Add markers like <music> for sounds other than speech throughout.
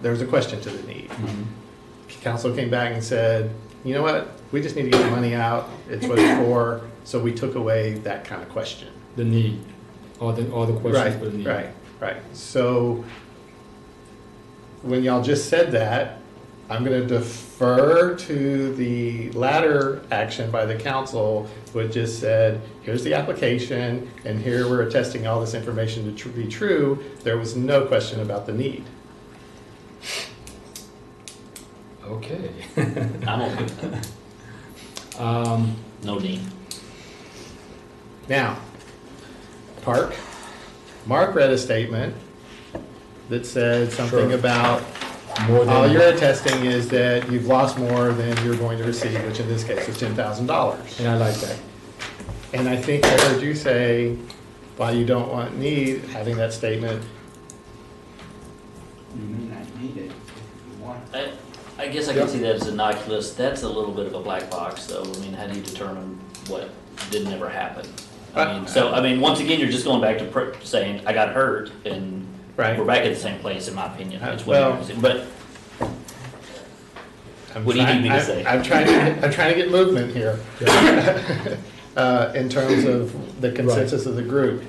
there was a question to the need. Council came back and said, you know what, we just need to get the money out, it's what it's for, so we took away that kind of question. The need, all the, all the questions for the need. Right, right, right. So when y'all just said that, I'm gonna defer to the latter action by the council, which just said, here's the application, and here we're attesting all this information to tr- be true. There was no question about the need. Okay. <laughs> I'm open. Um, No need. Now, Park, Mark read a statement that said something Sure. about more All you're than, attesting is that you've lost more than you're going to receive, which in this case is ten thousand dollars. and I like that. And I think I heard you say, why you don't want need, having that statement, You may not need it if you want. I, I guess I can see that as innocuous. That's a little bit of a black box, though. I mean, how do you determine what didn't ever happen? I Uh, mean, so, I mean, once again, you're just going back to pr- saying, I got hurt, and Right. we're back at the same place, in my opinion. Uh, It's what you're well- saying. But, I'm What do you trying- need me to I'm- say? I'm trying to, I'm trying to get movement here. <laughs> Uh, in terms of the consensus of the group.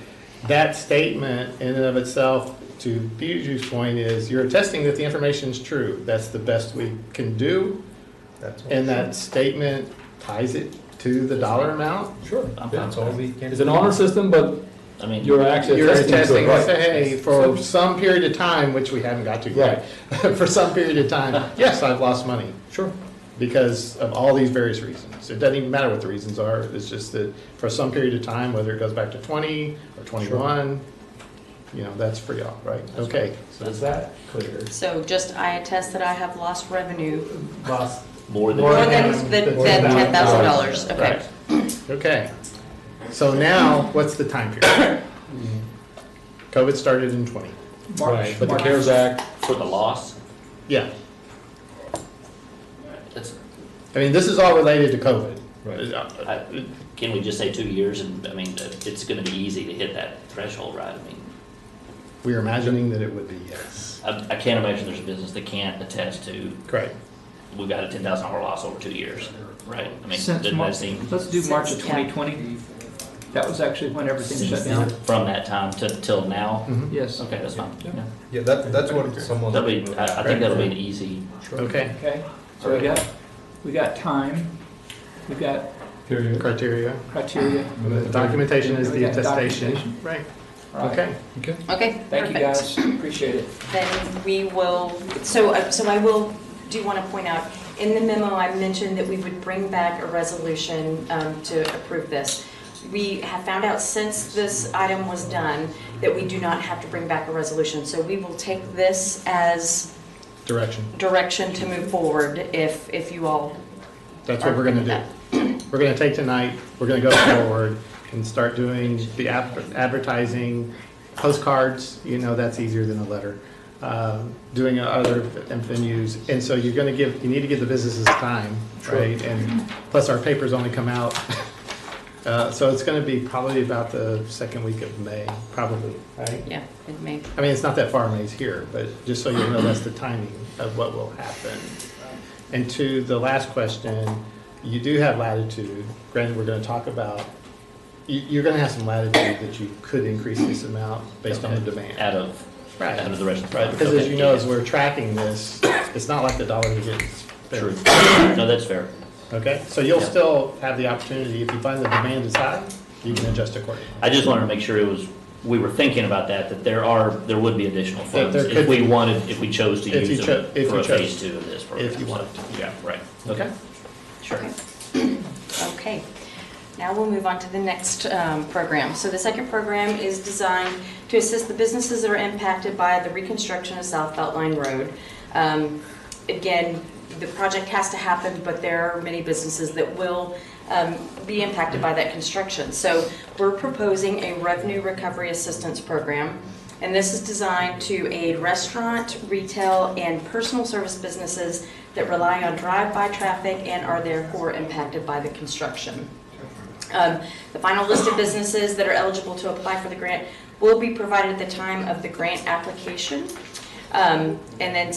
That statement in and of itself, to Biju's point, is you're attesting that the information is true. That's the best we can do. And that statement ties it to the dollar amount. Sure. I'm fine That's with all that. we can. It's an honor system, but I mean, you're actually. You're attesting to it, attesting, right. hey, for some period of time, which we haven't got to yet, <laughs> for some period of time, yes, I've lost money Sure. because of all these various reasons. It doesn't even matter what the reasons are, it's just that for some period of time, whether it goes back to twenty or twenty-one, you know, that's for y'all, right? Okay, So is that clear? So just I attest that I have lost revenue Lost. more than. More more than- than than than ten thousand dollars, okay. right, okay. So now, what's the time period? COVID started in twenty, Right, but the CARES Act, For the loss? yeah. That's, I mean, this is all related to COVID. Uh, Right. I, can we just say two years? And, I mean, it's gonna be easy to hit that threshold, right? I mean, We are imagining that it would be, yes. I, I can't imagine there's a business that can't attest to Correct. we've got a ten thousand dollar loss over two years, right? I mean, Since doesn't Mar- that seem, Let's do March of Since- yeah. 2020. That was actually when everything shut down. from that time to, till now? Mm-hmm. Yes. Okay, that's fine. Yeah. Yeah, that, that's what someone. That'll be, I, I think that'll be an easy, Okay, Okay, so we got, we got time, we've got period. criteria. criteria. The documentation is the Yeah, attestation. documentation. Right, All right. okay. Okay. Okay, Thank you, perfect. guys, appreciate it. Then we will, so, uh, so I will, do want to point out, in the memo, I mentioned that we would bring back a resolution um, to approve this. We have found out since this item was done, that we do not have to bring back a resolution. So we will take this as Direction. direction to move forward if, if you all That's what we're gonna do. We're gonna take tonight, we're gonna go forward and start doing the ad- advertising, postcards, you know, that's easier than a letter. Um, Doing other venues, and so you're gonna give, you need to give the businesses time, right? And plus our papers only come out. <laughs> Uh, So it's gonna be probably about the second week of May, probably, right? Yeah, it may. I mean, it's not that far, May's here, but just so you know, that's the timing of what will happen. And to the last question, you do have latitude, granted, we're gonna talk about, you, you're gonna have some latitude that you could increase this amount based on the demand. out of, Right. out of the rest of the. Right, because as okay, you know, yeah. as we're tracking this, it's not like the dollar you get. is spent. True. No, that's fair. Okay, so you'll Yeah. still have the opportunity, if you find the demand is high, you can adjust accordingly. I just wanted to make sure it was, we were thinking about that, that there are, there would be additional That funds there if could we be. wanted, if we chose to If you use cho- them if for you a phase chose. two of this program. you So, wanted Yeah, right. Okay? Sure. Okay, now we'll move on to the next um, program. So the second program is designed to assist the businesses that are impacted by the reconstruction of South Beltline Road. Um, Again, the project has to happen, but there are many businesses that will um, be impacted by that construction. So we're proposing a revenue recovery assistance program. And this is designed to aid restaurant, retail, and personal service businesses that rely on drive-by traffic and are therefore impacted by the construction. Um, The final list of businesses that are eligible to apply for the grant will be provided at the time of the grant application. Um, And then